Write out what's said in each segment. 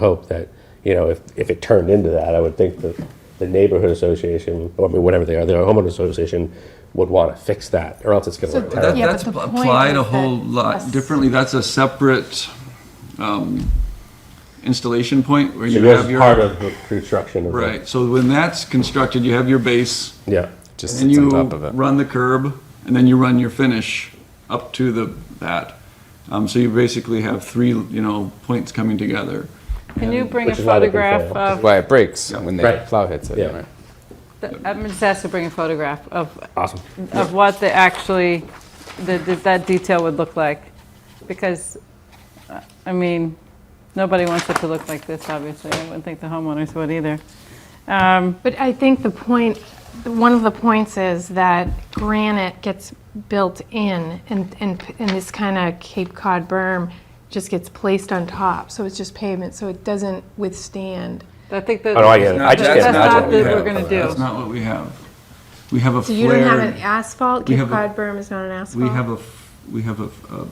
hope that, you know, if, if it turned into that, I would think that the neighborhood association, or I mean, whatever they are, the homeowner association would want to fix that, or else it's going to So look that- terrible. Yeah, but that's the pl- point applied a is whole that lot us- differently. That's a separate um, installation point where you It was have your part of the construction of the- right. So when that's constructed, you have your base, Yeah, just and sits you on top of it. run the curb, and then you run your finish up to the that. Um, so you basically have three, you know, points coming together. Can you bring a Which is why they can photograph fail. of, Why it breaks when the Right. plow hits it. Yeah. right? the- I'm just asked to bring a photograph of, awesome. of what the actually, the- the- that detail would look like? Because, uh, I mean, nobody wants it to look like this, obviously. I wouldn't think the homeowners would either. Um, But I think the point, one of the points is that granite gets built in and, and, and this kind of Cape Cod berm just gets placed on top. So it's just pavement, so it doesn't withstand. I think that. Oh, no, I get it. I just That's can't not imagine. what what we you that have we're gonna for do. that. That's not what we have. We have a So flare. you don't have an asphalt? We Cape have a- Cod berm is not an asphalt? We have a, f- we have a, a-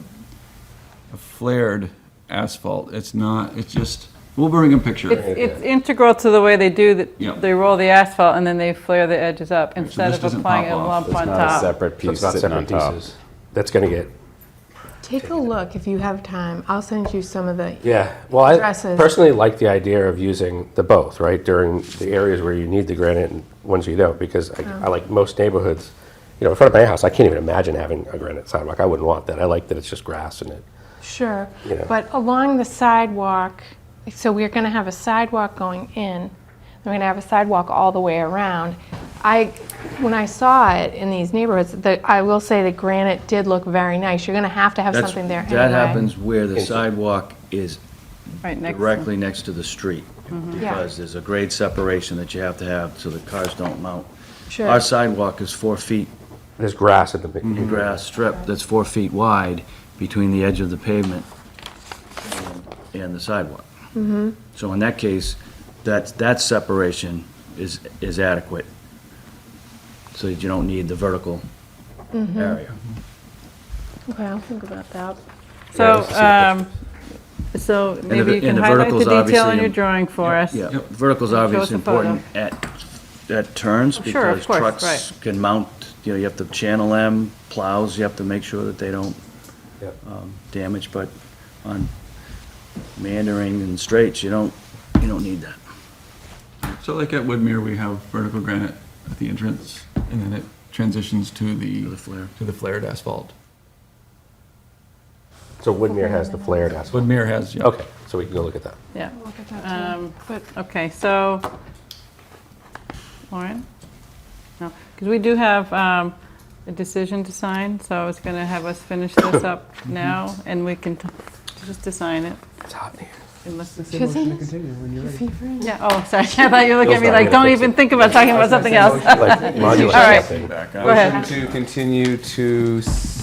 a flared asphalt. It's not, it's just, we'll bring a picture. It's it's integral to the way they do, Yeah. that. they roll the asphalt and then they flare the edges up instead this of doesn't applying pop a off. lump It's on not a top. Ah. separate So piece it's not sitting on separate top. pieces. That's going to get, Take a look if you have time. I'll send you some of the, yeah. Well, I Dresses. personally like the idea of using the both, right? During the areas where you need the granite and ones you don't, because I, I like most neighborhoods, you know, in front of my house, I can't even imagine having a granite sidewalk. I wouldn't want that. I like that it's just grass and it. sure. Yeah. But along the sidewalk, so we're going to have a sidewalk going in. We're going to have a sidewalk all the way around. I, when I saw it in these neighborhoods, the, I will say the granite did look very nice. You're going to have to have That's- something there anyway. That happens where the sidewalk is Right next to- directly next to the street, Mm-hmm. Yeah. because there's a grade separation that you have to have so the cars don't mount. Sure. Our sidewalk is four feet, There's grass in the big grass strip that's four feet wide between the edge of the pavement and- and the sidewalk. Mm-hmm. So in that case, that, that separation is, is adequate, so that you don't need the vertical Mm-hmm. area. Okay, I'll think about that. So, let's see the um, so the- maybe you and can the highlight the vertical's detail obviously in your in- drawing for us. Yeah, vertical's obviously us a photo. Oh, important at, at turns Sure, of because course, trucks right. can mount, you know, you have to channel them, plows, you have to make sure that they don't Yep. um, damage, but on meandering and straights, you don't, you don't need that. So like at Woodmere, we have vertical granite at the entrance, and then it transitions to the. To the flare. To the flared asphalt. So Woodmere has the flared asphalt. Woodmere has, yeah. Okay, so we can go look at that. Yeah, I'll look at that too. Um, But okay, so, Lauren? No, because we do have um, a decision to sign, so I was going to have us finish this up Mm-hmm. now, and we can t- just to sign it. It's hot in here. and let's- Isn't this your favorite? Yeah, oh, sorry, I thought you were looking at me Bill's not gonna like, don't fix even think about talking about something else. Like modular right. something. Go ahead. Motion to continue to s-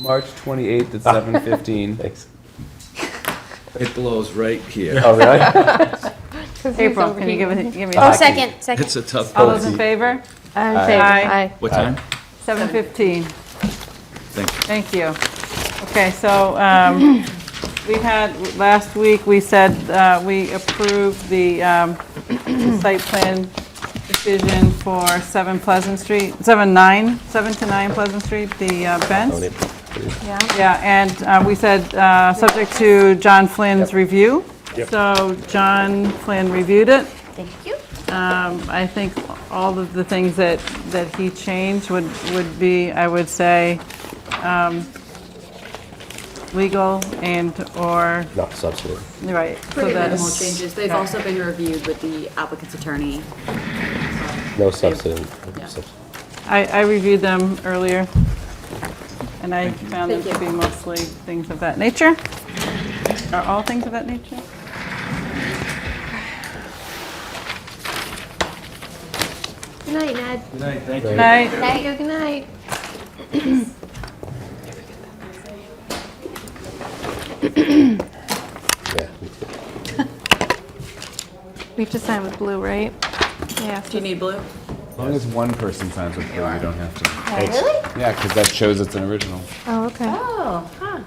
March 28th at 7:15. Thanks. It blows right here. Oh, really? April, can you give it, give me? Oh, second, second. It's a tough. All those in favor? I'm Aye. What time? 7:15. Thank you. Thank you. Okay, so um, we had, last week, we said uh, we approved the um, the site plan decision for 7 Pleasant Street, 7, 9, 7 to 9 Pleasant Street, the uh, fence. Yeah. Yeah, and uh, we said, uh, subject to John Flynn's review. So John Flynn reviewed it. Thank you. Um, I think all of the things that, that he changed would, would be, I would say, um, legal and/or, Not substantive. right. so Pretty minimal that's- changes. They've also been reviewed with the applicant's attorney. No substantive. Yeah. substantive. I, I reviewed them earlier, and I found them Thank to be you. mostly things of that nature. Are all things of that nature? Good night, Ned. Good night, thank you. Night. Thank you, good night. Yeah. me too. We have to sign with blue, right? Yeah. Do you need blue? As long as one person signs with blue, you don't have to. Really? Yeah, because that shows it's an original. Oh, okay. Oh, huh.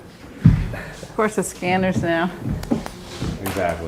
Of course, the scanners now. Exactly. Exactly.